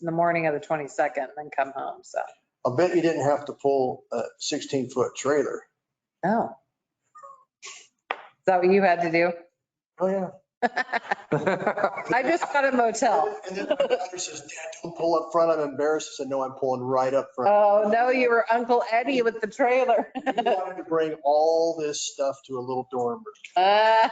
the morning of the 22nd and then come home, so. I bet you didn't have to pull a 16-foot trailer. No. Oh. Is that what you had to do? Oh, yeah. I just got a motel. And then my daughter says, Dad, don't pull up front. I'm embarrassed. I said, no, I'm pulling right up front. Oh, no, you were Uncle Eddie with the trailer. We wanted to bring all this stuff to a little dorm. room. Ah,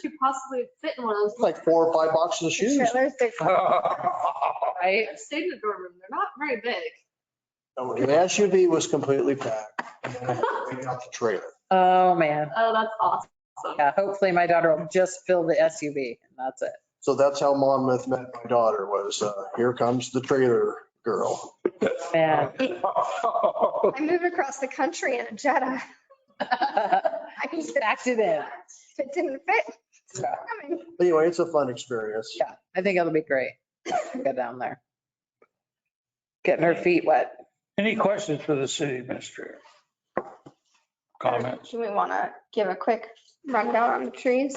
should possibly fit in one of those. It's Like four or five boxes of shoes. trailers, they- Right? I've stayed in a dorm room. They're not very big. No, The SUV was completely packed. And then I had to bring out the trailer. Oh, man. Oh, that's awesome. Yeah, hopefully my daughter will just fill the SUV and that's it. So that's how Monmouth met my daughter was, uh, here comes the trailer girl. Man. I moved across the country in a Jetta. I mean, Just packed it in. If it didn't fit, it's Yeah. coming. Anyway, it's a fun experience. Yeah, I think it'll be great. Go down there. Getting her feet wet. Any questions for the city administrator? Comments? Do we want to give a quick rundown on the trees?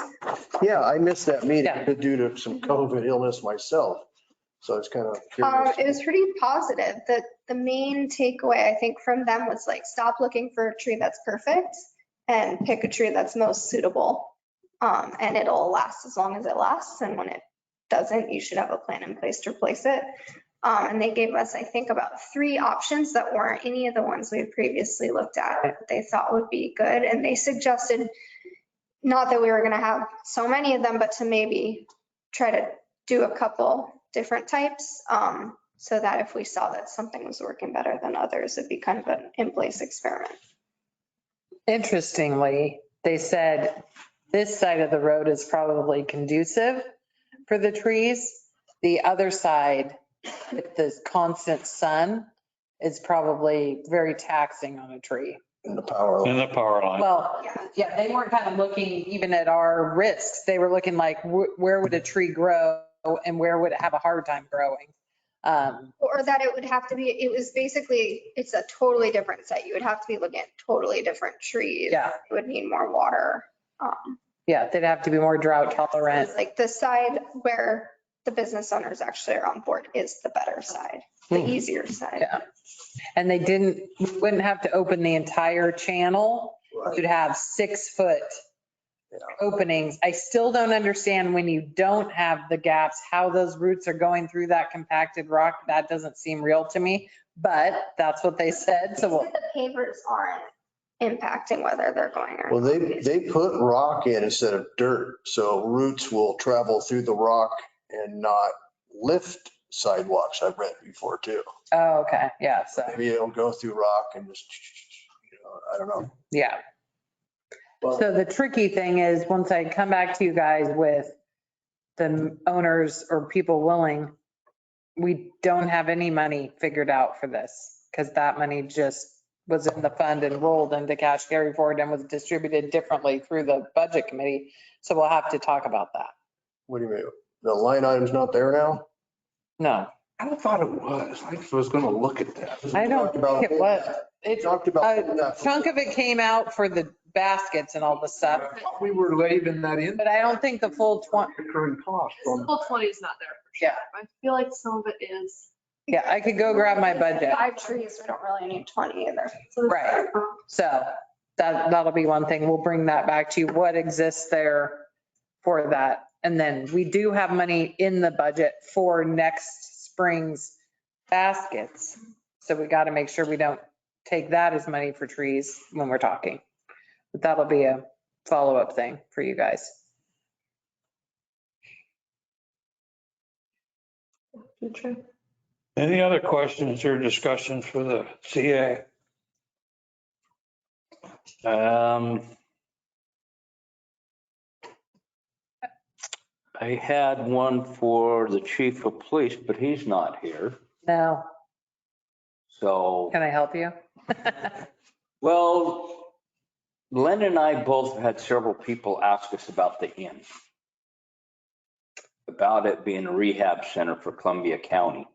Yeah, I missed that Yeah. meeting due to some COVID illness myself. So it's kind of Um, curious. it was pretty positive. The, the main takeaway, I think, from them was like, stop looking for a tree that's perfect and pick a tree that's most suitable. Um, and it'll last as long as it lasts. And when it doesn't, you should have a plan in place to replace it. Um, and they gave us, I think, about three options that weren't any of the ones we had previously looked at that they thought would be good. And they suggested, not that we were gonna have so many of them, but to maybe try to do a couple different types. Um, so that if we saw that something was working better than others, it'd be kind of an in-place experiment. Interestingly, they said this side of the road is probably conducive for the trees. The other side, with the constant sun, is probably very taxing on a tree. in the power. line. In the power line. Well, Yeah. yeah, they weren't kind of looking even at our risks. They were looking like, wh- where would a tree grow and where would it have a hard time growing? Um, Or that it would have to be, it was basically, it's a totally different site. You would have to be looking at totally different trees. Yeah. It would need more water. Um, Yeah, they'd have to be more drought tolerant. Like the side where the business owners actually are on board is the better side, the easier side. Hmm. Yeah. And they didn't, we wouldn't have to open the entire channel. Right. You'd have six foot Yeah. openings. I still don't understand when you don't have the gaps, how those roots are going through that compacted rock. That doesn't seem real to me, but that's what they said. So we'll- The pavers aren't impacting whether they're going or. Well, not. they, they put rock in instead of dirt, so roots will travel through the rock and not lift sidewalks, I've read before too. oh, okay, yeah, so, Maybe it'll go through rock and just, you know, I don't know. yeah. But So the tricky thing is, once I come back to you guys with the owners or people willing, we don't have any money figured out for this because that money just was in the fund and rolled into cash carry forward and was distributed differently through the budget committee. So we'll have to talk about that. what do you mean? The line item's not there now? No, I thought it was. I was gonna look at that. I don't Talked about think it was. Uh, it's, Talked about a that. chunk of it came out for the baskets and all the stuff, I thought We were leaving that in. but I don't think the full 20, Recurring cost The on. whole 20 is not there. for sure. I feel like some of it is. yeah, I could go grab my budget. Five trees, we don't really need 20 either. so it's- um, Right. So that, that'll be one thing. We'll bring that back to you. What exists there for that? And then we do have money in the budget for next spring's baskets. So we got to make sure we don't take that as money for trees when we're talking. But that'll be a follow-up thing for you guys. Future. Any other questions or discussions for the CA? Um, I had one for the chief of police, but he's not here. Now, So, can I help you? well, Len and I both had several people ask us about the inn. About it being a rehab center for Columbia County.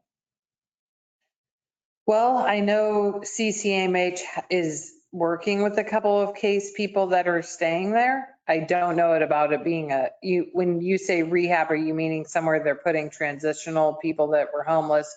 Well, I know CCMH is working with a couple of case people that are staying there. I don't know it about it being a, you, when you say rehab, are you meaning somewhere they're putting transitional people that were homeless